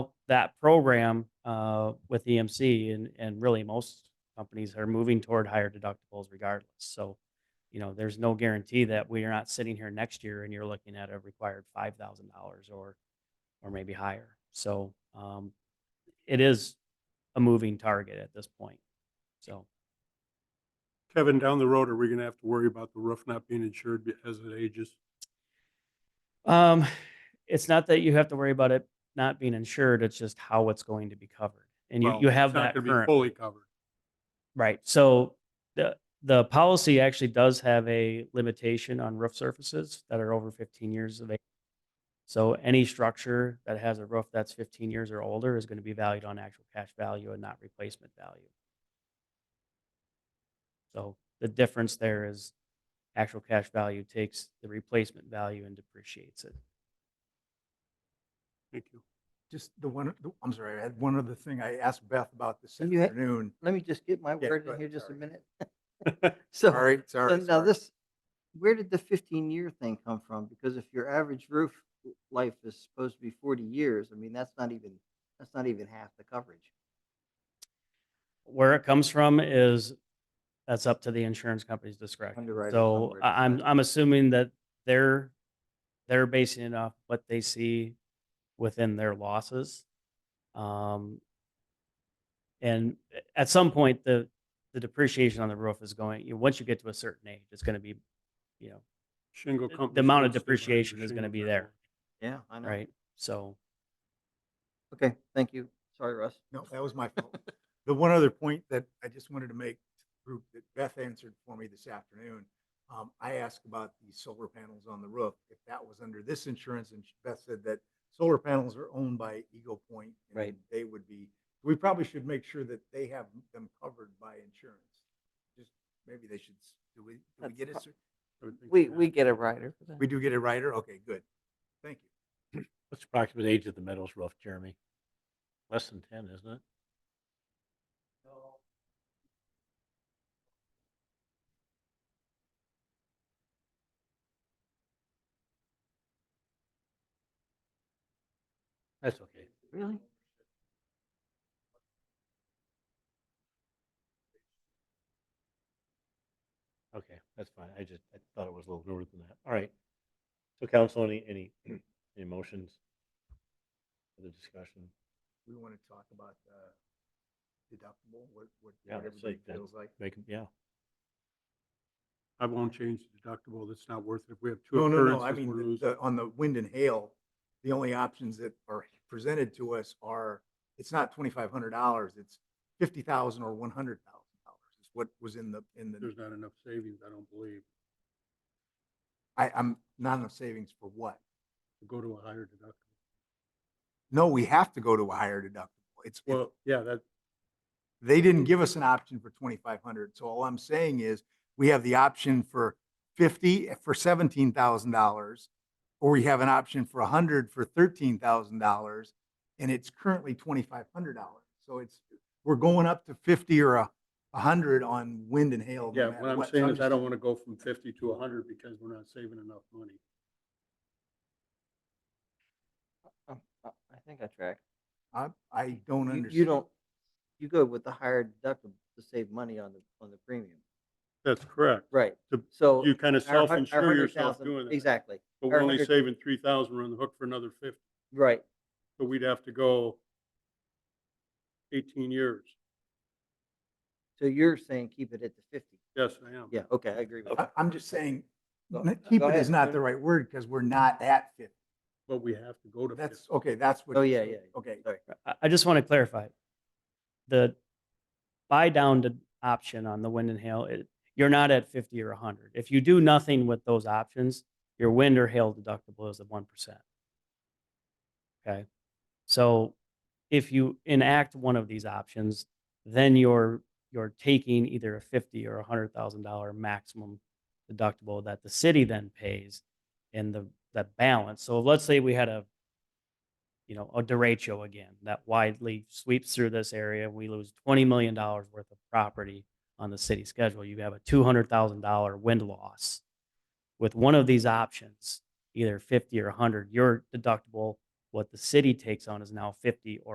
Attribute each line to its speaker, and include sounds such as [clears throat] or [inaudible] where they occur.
Speaker 1: that program uh, with EMC and, and really most companies are moving toward higher deductibles regardless. So, you know, there's no guarantee that we are not sitting here next year and you're looking at a required five thousand dollars or, or maybe higher. So um, it is a moving target at this point. So
Speaker 2: Kevin, down the road, are we gonna have to worry about the roof not being insured be- as it ages?
Speaker 1: um, it's not that you have to worry about it not being insured, it's just how it's going to be covered. And you,
Speaker 2: Well,
Speaker 1: you have
Speaker 2: it's
Speaker 1: that
Speaker 2: not gonna be
Speaker 1: current.
Speaker 2: Fully covered.
Speaker 1: Right, so the, the policy actually does have a limitation on roof surfaces that are over fifteen years of age. So any structure that has a roof that's fifteen years or older is gonna be valued on actual cash value and not replacement value. So the difference there is actual cash value takes the replacement value and depreciates it.
Speaker 2: Thank you.
Speaker 3: Just the one, the- I'm sorry, I had one other thing I asked Beth about this
Speaker 4: You had-
Speaker 3: afternoon.
Speaker 4: let me just get my
Speaker 3: Yeah, go
Speaker 4: word in
Speaker 3: ahead,
Speaker 4: here just a
Speaker 3: sorry. [laughs]
Speaker 4: minute. [laughs] So,
Speaker 3: Sorry,
Speaker 4: so
Speaker 3: sorry.
Speaker 4: now
Speaker 3: sorry.
Speaker 4: this, where did the fifteen year thing come from? Because if your average roof life is supposed to be forty years, I mean, that's not even, that's not even half the coverage.
Speaker 1: Where it comes from is, that's up to the insurance company's discretion.
Speaker 4: Underwriter
Speaker 1: So
Speaker 4: somewhere
Speaker 1: I- I'm,
Speaker 4: decided.
Speaker 1: I'm assuming that they're, they're basing it off what they see within their losses. Um, and at some point, the, the depreciation on the roof is going, you know, once you get to a certain age, it's going to be, you know,
Speaker 2: Shingle
Speaker 1: The- the
Speaker 2: company.
Speaker 1: amount of depreciation is gonna be there.
Speaker 4: Yeah, I know.
Speaker 1: right? So.
Speaker 4: Okay, thank you. Sorry, Russ.
Speaker 3: No, that was my fault. The one other point that I just wanted to make, to the group that Beth answered for me this afternoon. Um, I asked about the solar panels on the roof, if that was under this insurance, and Beth said that solar panels are owned by Eagle Point. and
Speaker 4: Right.
Speaker 3: They would be, we probably should make sure that they have them covered by insurance. Just, maybe they should, s- do we, do we
Speaker 4: That's
Speaker 3: get a,
Speaker 4: prob-
Speaker 3: cer-
Speaker 4: We, we get a rider for
Speaker 3: we
Speaker 4: that.
Speaker 3: do get a rider? Okay, good. Thank you.
Speaker 5: What's the approximate age of the Meadows roof, Jeremy? Less than ten, isn't it? That's okay.
Speaker 4: Really?
Speaker 5: Okay, that's fine. I just, I thought it was a little newer than that. All right. So council, any, any, [clears throat] any motions? For the discussion?
Speaker 3: We want to talk about uh, deductible, what, what
Speaker 5: Yeah,
Speaker 3: what
Speaker 5: that's
Speaker 3: everybody
Speaker 5: like that.
Speaker 3: feels like.
Speaker 5: Make, 'em- yeah.
Speaker 2: I won't change the deductible. That's not worth it. If we have two
Speaker 3: No, no, no, I
Speaker 2: occurrences, we're
Speaker 3: mean,
Speaker 2: losing.
Speaker 3: the- on the wind and hail, the only options that are presented to us are, it's not twenty-five hundred dollars, it's fifty thousand or one hundred thousand dollars is what was in the, in the,
Speaker 2: There's not enough savings, I don't believe,
Speaker 3: I, I'm not enough savings for what?
Speaker 2: to go to a higher deductible.
Speaker 3: No, we have to go to a higher deductible. It's, it's
Speaker 2: Well, yeah, that,
Speaker 3: They didn't give us an option for twenty-five hundred, so all I'm saying is, we have the option for fifty, for seventeen thousand dollars, or we have an option for a hundred for thirteen thousand dollars, and it's currently twenty-five hundred dollars. So it's, we're going up to fifty or a, a hundred on wind and hail. no
Speaker 2: yeah,
Speaker 3: matter
Speaker 2: what I'm
Speaker 3: So
Speaker 2: saying is I
Speaker 3: just-
Speaker 2: don't want to go from fifty to hundred because we're not saving enough money.
Speaker 4: Um, I I think I track.
Speaker 3: I, I don't
Speaker 4: You,
Speaker 3: understand.
Speaker 4: you don't, you go with the higher deductible to save money on the, on the premium.
Speaker 2: That's correct.
Speaker 4: Right,
Speaker 2: To-
Speaker 4: so.
Speaker 2: You kind of
Speaker 4: our hun- our
Speaker 2: self-insure yourself
Speaker 4: 100,000
Speaker 2: doing that.
Speaker 4: Exactly,
Speaker 2: But
Speaker 4: our
Speaker 2: we're only
Speaker 4: 100
Speaker 2: saving three thousand, we're on the hook for another fifty.
Speaker 4: right.
Speaker 2: So we'd have to go eighteen years.
Speaker 4: So you're saying keep it at the fifty?
Speaker 2: Yes, I am.
Speaker 4: Yeah, okay, I agree with
Speaker 3: I,
Speaker 4: that.
Speaker 3: I'm just saying,
Speaker 4: Go-
Speaker 3: n- keep
Speaker 4: go
Speaker 3: it is
Speaker 4: ahead.
Speaker 3: not the right word, because we're not at fifty.
Speaker 2: But we have to go to fifty.
Speaker 3: That's, okay, that's what.
Speaker 4: Oh,
Speaker 3: you're
Speaker 4: yeah,
Speaker 3: saying.
Speaker 4: yeah, yeah.
Speaker 3: Okay,
Speaker 1: I, I just want to clarify. The buy down to option on the wind and hail, it, you're not at fifty or hundred. If you do nothing with those options, your wind or hail deductible is at one percent. Okay, so if you enact one of these options, then you're, you're taking either a fifty or a hundred thousand dollar maximum deductible that the city then pays in the, that balance. So let's say we had a you know, a derecho again that widely sweeps through this area. We lose $20 million worth of property on the city schedule. You have a $200,000 wind loss. With one of these options, either 50 or 100, your deductible, what the city takes on is now 50 or